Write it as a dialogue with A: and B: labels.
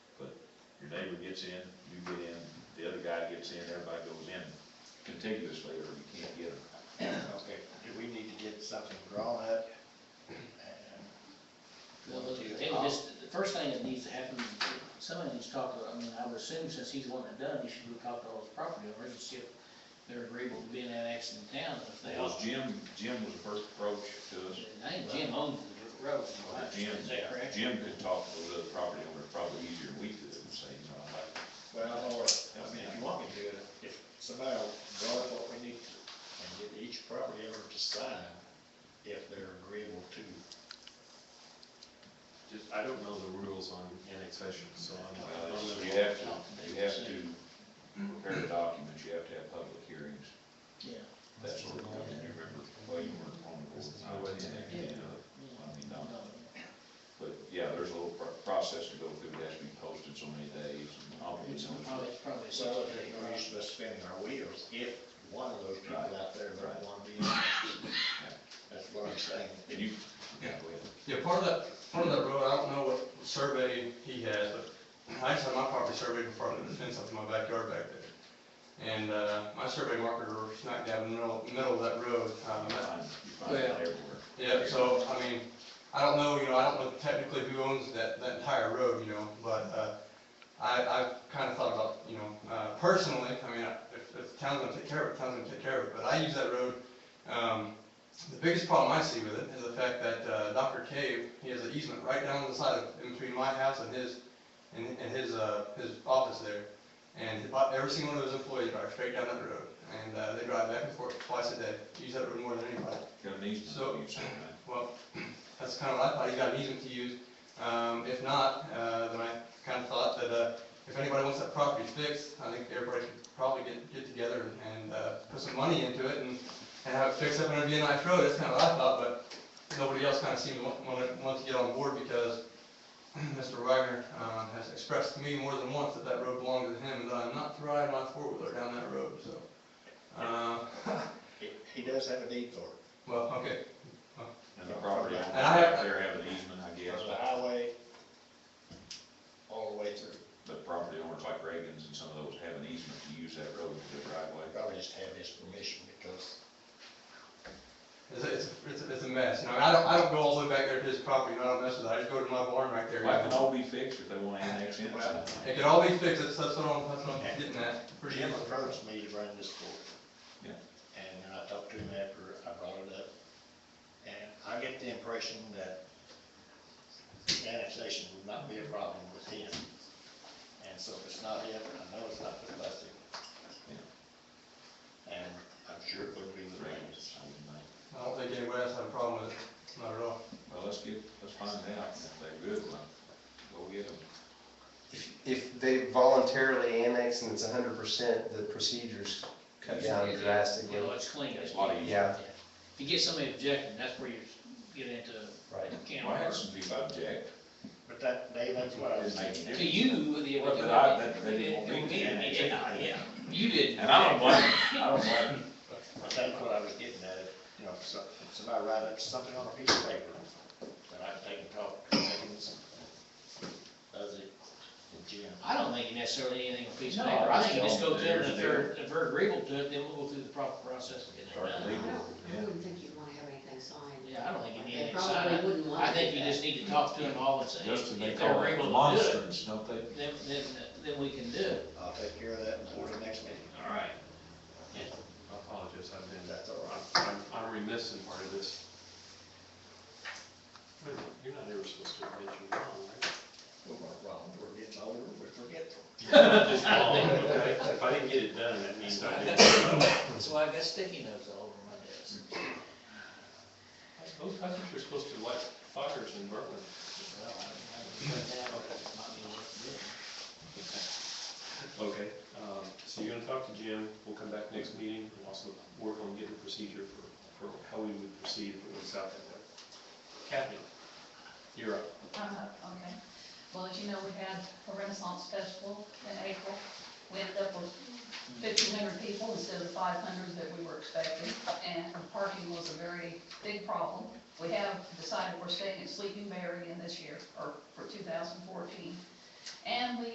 A: neighbor gets in, you get in, the other guy gets in, everybody goes in contiguously, or you can't get them.
B: Okay, do we need to get something drawn up?
C: Well, it was just, the first thing that needs to happen, somebody needs to talk to, I mean, I would assume since he's wanting it done, he should go talk to all his property owners and see if they're agreeable to being annexed in town, and if they are.
A: Was Jim, Jim was the first approach to us.
C: I think Jim owns the road, from what I
A: Jim,
C: understand, is that correct?
A: Jim could talk to those other property owners probably easier than we could and say, you know, like,
B: Well, or, I mean, if you want me to, if somebody will draw up what we need to, and get each property owner to sign if they're agreeable to.
D: Just, I don't know the rules on annexation, so I'm. I
A: well,
D: don't
B: Uh,
A: it's-
D: know.
A: you have to, you have to prepare the documents, you have to have public hearings,
C: Yeah,
A: that sort of thing. You remember, well, you weren't on the board.
D: I wasn't there.
A: You know, I mean,
C: no,
A: not- But, yeah, there's a little pro- process to go through, it has to be posted so many days, and I'll be
C: it's
A: doing
C: probably,
A: it.
C: it's probably a
B: Well,
C: sixty day
B: there's no
C: process.
B: use of us spinning our wheels if one of those people
A: Right.
B: out there
A: Right.
B: don't wanna be. in it. That's what I'm saying.
A: And you, yeah, go ahead.
E: Yeah, part of that, part of that road, I don't know what survey he has, but I just had my property surveyed before I put the fence up in my backyard back there. And, uh, my survey marker smack dab in the middle, middle of that road.
A: You
E: Um, that-
A: find- you find it everywhere.
E: Yeah, so, I mean, I don't know, you know, I don't know technically who owns that, that entire road, you know, but, uh, I, I've kinda thought about, you know, uh, personally, I mean, if, if the town's gonna take care of it, the town's gonna take care of it, but I use that road, um, the biggest problem I see with it is the fact that, uh, Dr. Cave, he has an easement right down the side of, in between my house and his, and, and his, uh, his office there. And about every single one of those employees drive straight down that road, and, uh, they drive back and forth twice a day, use that road more than anybody.
A: Got an easement,
E: So-
A: you said, right?
E: Well, that's kind of what I thought, he's got an easement to use. Um, if not, uh, then I kind of thought that, uh, if anybody wants that property fixed, I think everybody should probably get, get together and, uh, put some money into it and, and have it fixed up and it'd be a nice road, that's kind of what I thought, but nobody else kind of seemed to want, want, want to get on board because Mr. Wagner, uh, has expressed to me more than once that that road belonged to him and that I'm not to ride my four-wheeler down that road, so. Uh,
B: He- He does have a deed for it,
E: well, okay,
A: And the property owner,
B: And
E: I have-
A: out there have an easement, I guess,
B: from the highway all the way through.
A: but property owners like Reagan's and some of those have an easement to use that road to the right way.
B: Probably just have his permission because
E: It's, it's, it's, it's a mess, you know, I don't, I don't go all the way back there to his property, you know, I don't mess with that, I just go to my barn right there. you
A: That can
E: know.
A: all be fixed if they want to annex in. or something.
E: It could all be fixed, that's, that's what I'm, that's what I'm getting at, pretty
B: Jim
E: easily.
B: approached me to run this board.
A: Yeah.
B: And then I talked to him after I brought it up, and I get the impression that annexation would not be a problem with him. And so if it's not him, I know it's not with Buster. And I'm sure it wouldn't be with Raines.
A: Reagan's, I wouldn't think.
E: I don't think anybody else had a problem with it, not at all.
A: Well, let's get, let's find out if they're good, well, go get them.
F: If they voluntarily annex and it's hundred percent, the procedures cut down drastically.
C: You know, it's clean.
A: It's a lot easier.
F: Yeah,
C: If you get somebody objecting, that's where you get into
F: right.
C: a can
A: Well, I had
C: of
A: some people object.
B: But that, Dave, that's what I was thinking.
C: worms. To you, the.
A: Well, but I- that- that didn't want me to annex it.
C: Yeah, yeah, you didn't.
A: And I don't blame them, I don't blame them.
B: But that's what I was getting at, you know, if some- if somebody write up something on a piece of paper, then I take and talk to Higgins, does it, and Jim.
C: I don't think necessarily anything will please
A: No,
C: paper. I
A: I
C: think you just go
A: don't.
C: to them, and if they're,
A: There's-
C: if they're agreeable to it, then we'll go through the proper process of getting
A: Start
C: it done.
A: legal.
G: I don't,
A: Yeah.
G: I wouldn't think you'd wanna have anything signed.
C: Yeah, I don't think you need
G: They
C: any
G: probably
C: sign.
G: wouldn't want
C: I think
G: to
C: you
G: do
C: just
G: that.
C: need to talk to them all and say,
A: Just to
C: if
A: make
C: they're
A: all
C: agreeable to do it,
A: monsters, don't they?
C: then, then, then we can do it.
B: I'll take care of that before the next meeting,
D: All right.
C: Yeah.
D: I apologize, I've
B: if
D: been,
B: that's all right.
D: I'm, I'm remiss in part of this. Wait a minute, You're not ever supposed to admit you're wrong, right?
B: We're not wrong, we're getting older, we're forgetful.
D: Just wrong, okay? If I didn't get it done, that means I didn't.
C: So I got sticky notes all over my desk.
D: I suppose, I think you're supposed to light fires in Berkeley.
C: Well, I don't know, that might be worth doing.
D: Okay, um, so you're gonna talk to Jim, we'll come back next meeting, and also work on getting a procedure for, for how we would proceed if it works out that way. Kathy, you're up.
H: Uh, Okay. Well, as you know, we had a Renaissance Festival in April. We ended up with fifteen hundred people instead of five hundred that we were expecting, and parking was a very big problem. We have decided we're staying at Sleeping Bear again this year, or for two thousand fourteen, and we